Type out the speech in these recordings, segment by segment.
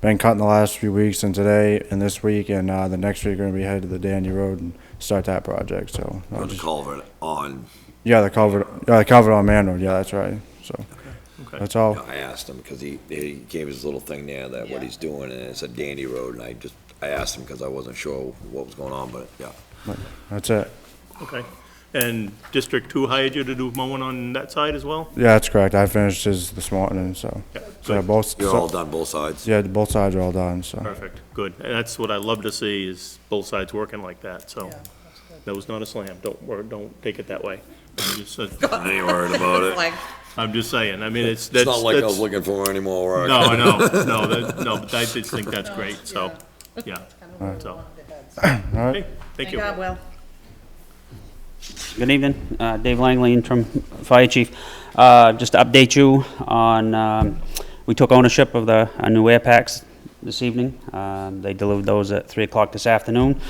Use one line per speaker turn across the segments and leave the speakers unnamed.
been cutting the last few weeks and today and this week and uh, the next week we're gonna be headed to the Dandy Road and start that project. So I'll
on the
just-
culvert on,
yeah, the culvert, yeah, the culvert on Man Road. Yeah, that's right. So that's all.
I asked him, because he, he gave his little thing there that what
Yeah.
he's doing, and it's a dandy road, and I just, I asked him because I wasn't sure what was going on, but, yeah.
That's it.
Okay. And District Two hired you to do mowing on that side as well?
Yeah, that's correct. I finished his this morning. So
Yeah,
so yeah,
good.
both
You're
so-
all done both sides?
yeah, both sides are all done. So
Perfect, good. And that's what I love to see, is both sides working like that, so. That was not a slam, don't, wor- don't take it that way. I'm just, sa-
I ain't worried about it.
Like,
I'm just saying, I mean, it's,
It's
that's.
not like I was
that's-
looking for any more work.
No, I know, no, that, no, but I did think that's great, so, yeah, so. Okay, Thank
thank
you.
God, Will.
Good evening, Uh, Dave Langley, interim fire chief. Uh, Just to update you on, um, we took ownership of the our new air packs this evening. Um, They delivered those at 3 o'clock this afternoon.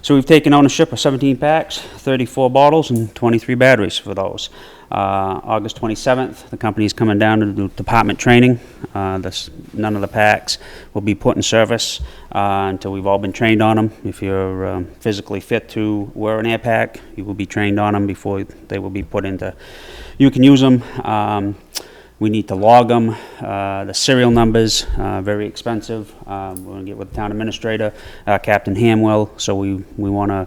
So we've taken ownership of 17 packs, 34 bottles, and 23 batteries for those. Uh, August 27th, the company's coming down to do department training. Uh, this- None of the packs will be put in service uh, until we've all been trained on them. If you're um, physically fit to wear an air pack, you will be trained on them before they will be put into, you can use them. Um, we need to log them, uh, the serial numbers, uh, very expensive. Um, we're gonna get with the town administrator, uh, Captain Hamwell, so we, we wanna,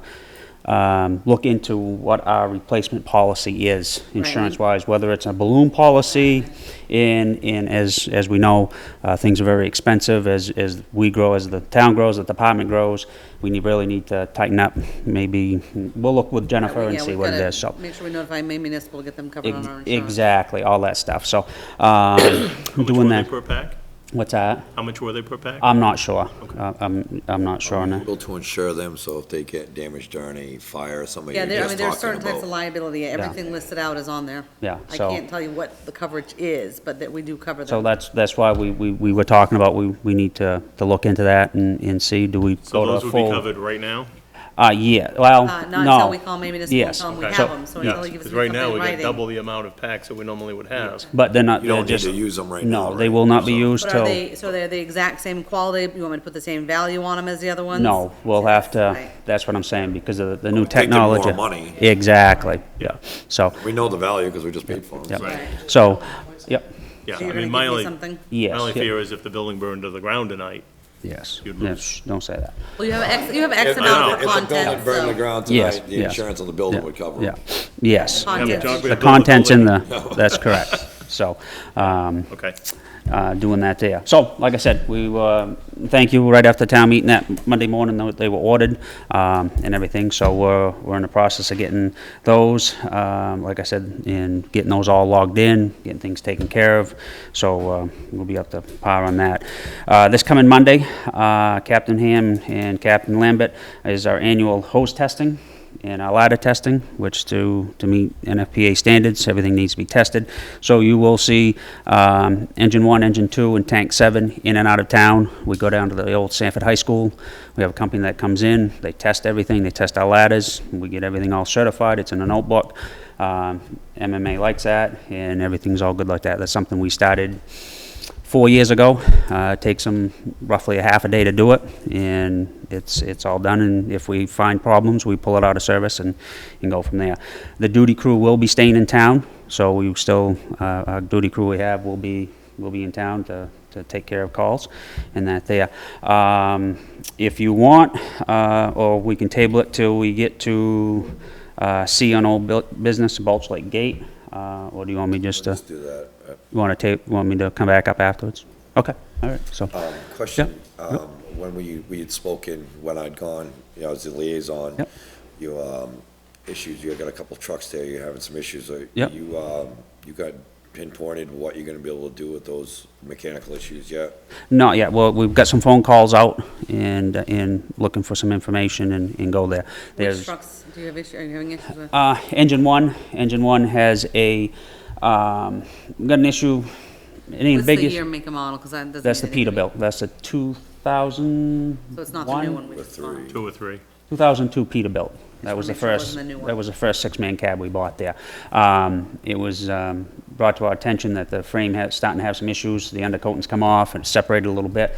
um, look into what our replacement policy is, insurance-wise, whether it's a balloon policy, and, and as, as we know, uh, things are very expensive as, as we grow, as the town grows, the department grows. We need, really need to tighten up, maybe, we'll look with Jennifer and
Yeah,
see
we've
what it
gotta
is, so.
Make sure we notify Maine Municipal, get them covered on our
Ex-
insurance.
Exactly, all that stuff, so, um,
How
doing
much were they
that.
per pack?
What's that?
How much were they per pack?
I'm not sure. Uh, I'm, I'm not sure on that.
Able to insure them, so if they get damaged during a fire or something,
Yeah,
you're
there, I mean,
just
there are
talking
certain types of
about.
liability, everything listed out is on there.
Yeah,
I
so-
can't tell you what the coverage is, but that we do cover them.
So that's, that's why we, we, we were talking about, we, we need to, to look into that and, and see, do we
So
go to a
those
full?
would be covered right now?
Uh, yeah, well,
Uh,
no.
not until we call Maine Municipal, and
Yes.
tell them we
Okay.
have them, so until
Yeah,
he gives us
'cause right now,
something
we
in
got
writing.
double the amount of packs that we normally would have.
But they're not,
You
they're
don't need
just.
to use them right now.
No, they
right?
will not be
So-
used
But are
till,
they, so they're the exact same quality, you want me to put the same value on them as the other ones?
no, we'll have to,
Right.
that's what I'm saying, because of the new
take them more
technology.
money.
Exactly, yeah, so,
We know the value because we just paid for them.
yeah,
Right.
so, yep,
Yeah,
So
I mean,
you're gonna
my
give me
only,
something?
yes.
my only
yeah,
fear is if the building burned to the ground tonight,
Yes,
you'd
yeah,
lose.
shh, don't say that.
Well, you have X, you have
If
X
the
amount of
building
content,
burned to the
so.
ground
Yes,
tonight, the
yes.
insurance on the building
Yeah,
would cover
Yeah,
them.
yes,
Content.
John, we
the
built the
content's in the,
building.
that's correct, so, um,
okay.
uh, doing that there. So, like I said, we, uh, thank you, right after town meeting that Monday morning, tho- they were ordered um, and everything, so we're, we're in the process of getting those, um, like I said, and getting those all logged in, getting things taken care of, so uh, we'll be up to par on that. Uh, This coming Monday, uh, Captain Ham and Captain Lambert is our annual hose testing and our ladder testing, which to, to meet NFPA standards, everything needs to be tested. So you will see um, engine one, engine two, and tank seven in and out of town. We go down to the old Sanford High School. We have a company that comes in, they test everything, they test our ladders, we get everything all certified, it's in a notebook. Um, MMA likes that, and everything's all good like that. That's something we started four years ago. Uh, it takes them roughly a half a day to do it, and it's it's all done. And if we find problems, we pull it out of service and, and go from there. The duty crew will be staying in town, so we still uh, our duty crew we have will be will be in town to. To take care of calls and that there. Um, if you want, uh, or we can table it till we get to uh, see on old bu- business, Bulch Lake Gate, uh, or do you want me just to?
Let's do that. Uh,
You want to take, want me to come back up afterwards? Okay, all right, so,
Um, Question, um, when we, we had spoken, when I'd gone, you know, as the liaison,
Yep.
you, um, issues, you got a couple trucks there, you're having some issues. Are
Yep.
You, um, you got pinpointed what you're gonna be able to do with those mechanical issues yet?
not yet, well, we've got some phone calls out and, and looking for some information and, and go there.
Which
There's,
trucks do you have issue, are you having issues with?
uh, engine one, engine one has a, um, got an issue, it ain't
What's
big
the
issue.
year, make and model, because that doesn't.
That's the
mean anything to me.
Peterbilt, that's a two thousand
So it's not the new one we
The
just bought.
three.
Two or three.
2002 Peterbilt. That
wanna
was the
make sure it
first,
wasn't the new one.
that was the first six-man cab we bought there. Um, It was um, brought to our attention that the frame had, starting to have some issues. The undercoating's come off and it's separated a little bit.